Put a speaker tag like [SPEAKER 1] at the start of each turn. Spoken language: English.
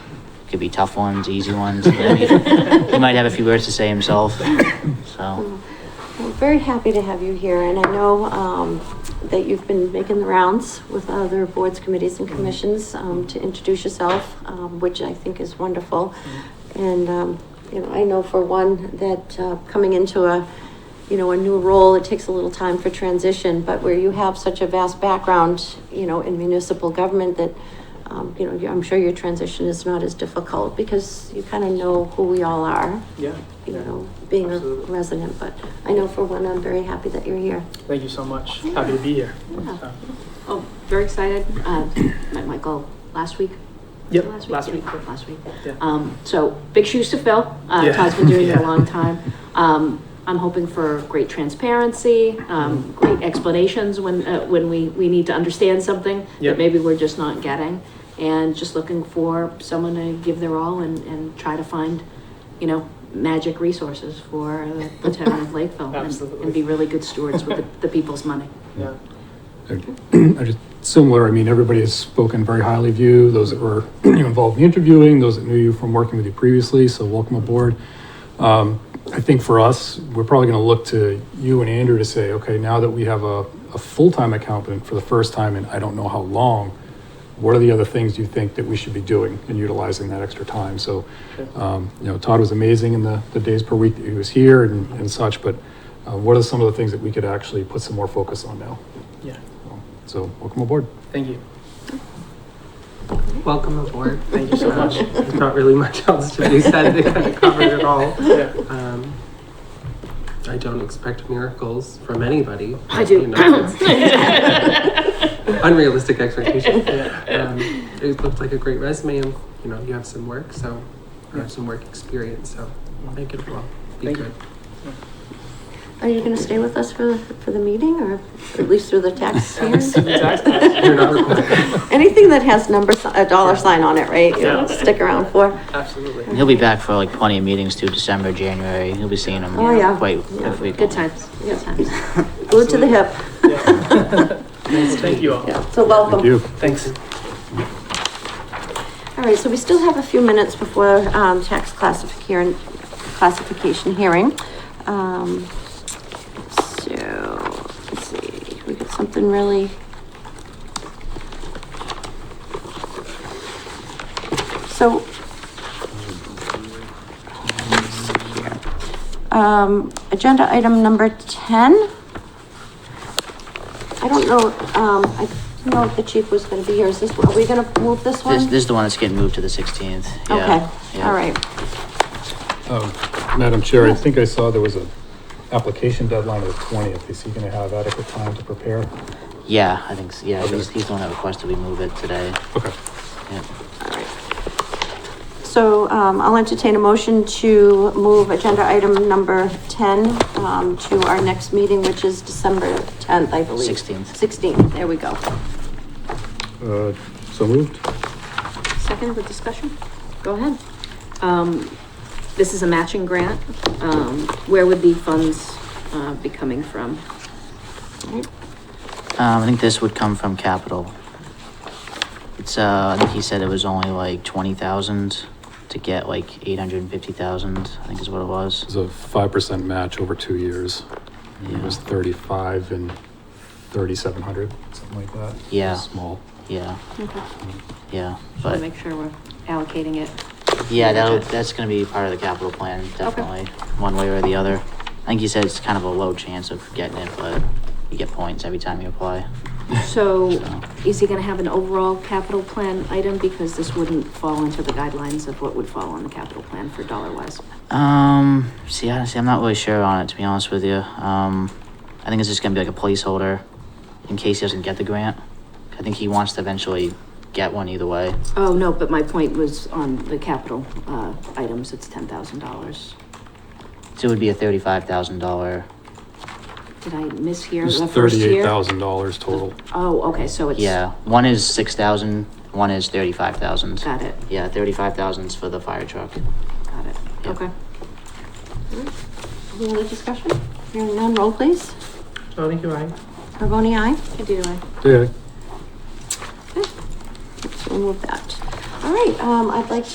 [SPEAKER 1] could be tough ones, easy ones. you know what I mean? He might have a few words to say himself, so.
[SPEAKER 2] We're Mm. very happy to have you here, and I know um, that you've been making the rounds with other boards, committees, and commissions um, to introduce yourself, um, which I think is wonderful. And, um, you know, I know for one that uh, coming into a, you know, a new role, it takes a little time for transition, but where you have such a vast background, you know, in municipal government that, um, you know, you- I'm sure your transition is not as difficult because you kind of know who we all are
[SPEAKER 3] Yeah.
[SPEAKER 2] you
[SPEAKER 3] yeah.
[SPEAKER 2] know, being a
[SPEAKER 3] Absolutely.
[SPEAKER 2] resident, but I know for one, I'm very happy that you're here.
[SPEAKER 3] Thank you so much. Happy to be here.
[SPEAKER 2] Yeah.
[SPEAKER 3] So,
[SPEAKER 4] Oh, very excited. Uh, Met Michael last week.
[SPEAKER 3] Yep,
[SPEAKER 4] Was it
[SPEAKER 3] last
[SPEAKER 4] Yeah,
[SPEAKER 3] week.
[SPEAKER 4] Last week.
[SPEAKER 3] Yeah.
[SPEAKER 4] Um, So big shoes to fill. Uh,
[SPEAKER 3] Yeah.
[SPEAKER 4] Todd's been doing it a
[SPEAKER 3] Yeah.
[SPEAKER 4] long time. Um, I'm hoping for great transparency, um, great explanations when, uh, when we, we need to understand something
[SPEAKER 3] Yep.
[SPEAKER 4] that maybe we're just not getting. And just looking for someone to give their all and, and try to find, you know, magic resources for the- the town of Lakeville. and-
[SPEAKER 3] Absolutely.
[SPEAKER 4] And be really good stewards with the- the people's money.
[SPEAKER 3] Yeah.
[SPEAKER 5] I just, similar, I mean, everybody has spoken very highly of you, those that were involved in interviewing, those that knew you from working with you previously, so welcome aboard. Um, I think for us, we're probably gonna look to you and Andrew to say, okay, now that we have a, a full-time accountant for the first time in I don't know how long, what are the other things you think that we should be doing and utilizing that extra time? So, um, you know, Todd was amazing in the, the days per week that he was here and, and such, but uh, what are some of the things that we could actually put some more focus on now?
[SPEAKER 3] Yeah.
[SPEAKER 5] So welcome aboard.
[SPEAKER 3] Thank you.
[SPEAKER 6] Welcome aboard.
[SPEAKER 3] Thank you so much.
[SPEAKER 6] There's not really much else to be said. They kind of covered it all.
[SPEAKER 3] Yeah.
[SPEAKER 6] Um, I don't expect miracles from anybody.
[SPEAKER 4] I do.
[SPEAKER 6] You know, it's unrealistic expectation.
[SPEAKER 3] Yeah.
[SPEAKER 6] Um, it looked like a great resume, and you know you have some work, so you have some work experience. So make it well. Be
[SPEAKER 3] Thank you.
[SPEAKER 6] good.
[SPEAKER 2] Are you gonna stay with us for, for the meeting, or at least through the tax hearing?
[SPEAKER 6] You're not required.
[SPEAKER 2] Anything that has number, si- a dollar sign on it, right,
[SPEAKER 3] Yeah.
[SPEAKER 2] you'll stick around for?
[SPEAKER 1] And
[SPEAKER 3] Absolutely.
[SPEAKER 1] He'll be back for like plenty of meetings too, December, January. You'll be seeing him.
[SPEAKER 2] Oh, yeah.
[SPEAKER 1] Quite,
[SPEAKER 2] Yeah.
[SPEAKER 1] quite frequently.
[SPEAKER 4] Good times, good times.
[SPEAKER 2] Glued to the hip.
[SPEAKER 3] Yeah. Thank you all.
[SPEAKER 2] Yeah, so welcome.
[SPEAKER 5] Thank you.
[SPEAKER 3] Thanks.
[SPEAKER 2] All right, so we still have a few minutes before, um, tax classification, classification hearing. Um, so, let's see, we got something really. So. here. Um, agenda item number ten. I don't know, um, I didn't know if the chief was gonna be here. Is this, are we gonna move this one?
[SPEAKER 1] This, this is the one that's getting moved to the sixteenth.
[SPEAKER 2] Okay, all right.
[SPEAKER 5] Um, Madam Chair, I think I saw there was a application deadline of the twentieth. Is he gonna have adequate time to prepare?
[SPEAKER 1] Yeah, I think, s- yeah,
[SPEAKER 5] Okay.
[SPEAKER 1] he's, he's the one that requested we move it today.
[SPEAKER 5] Okay.
[SPEAKER 1] Yeah.
[SPEAKER 2] So um, I'll entertain a motion to move agenda item number 10 um, to our next meeting, which is December 10th, I believe.
[SPEAKER 1] 16th.
[SPEAKER 2] 16th, there we go.
[SPEAKER 5] Uh, so moved?
[SPEAKER 4] Second, the discussion? Go ahead. Um, this is a matching grant. Um, where would the funds, uh, be coming from?
[SPEAKER 1] Um, I think this would come from capital. It's, uh, I think he said it was only like twenty thousand to get like eight hundred and fifty thousand, I think is what it
[SPEAKER 5] It
[SPEAKER 1] was.
[SPEAKER 5] was a five percent match over two years. It was thirty-five and thirty-seven hundred, something like that.
[SPEAKER 1] Yeah.
[SPEAKER 5] Small.
[SPEAKER 1] Yeah,
[SPEAKER 4] Okay.
[SPEAKER 1] yeah,
[SPEAKER 4] Wanna
[SPEAKER 1] but,
[SPEAKER 4] make sure we're allocating it.
[SPEAKER 1] yeah, that, that's gonna be part of the capital plan, definitely, one way or the other. I think he said it's kind of a low chance of getting it, but you get points every time you apply.
[SPEAKER 4] So,
[SPEAKER 1] So-
[SPEAKER 4] is he gonna have an overall capital plan item? Because this wouldn't fall into the guidelines of what would fall on the capital plan for dollar wise.
[SPEAKER 1] Um, see, honestly, I'm not really sure on it, to be honest with you. Um, I think it's just gonna be like a placeholder in case he doesn't get the grant. I think he wants to eventually get one either way.
[SPEAKER 4] Oh, no, but my point was on the capital, uh, items, it's ten thousand dollars.
[SPEAKER 1] So it would be a thirty-five thousand dollar,
[SPEAKER 4] Did I mishear
[SPEAKER 5] It was
[SPEAKER 4] the first
[SPEAKER 5] thirty-eight
[SPEAKER 4] year?
[SPEAKER 5] thousand dollars total.
[SPEAKER 4] Oh, okay, so it's.
[SPEAKER 1] yeah, one is six thousand, one is thirty-five thousand.
[SPEAKER 4] Got it,
[SPEAKER 1] Yeah, thirty-five thousand's for the fire truck.
[SPEAKER 4] got it,
[SPEAKER 1] Yeah.
[SPEAKER 4] okay.
[SPEAKER 2] Any other discussion? Hearing none, roll please.
[SPEAKER 3] Tony, Oh, you right?
[SPEAKER 2] Carboni, aye?
[SPEAKER 4] I do, I.
[SPEAKER 5] Yeah.
[SPEAKER 2] So we'll move that. All right, um, I'd like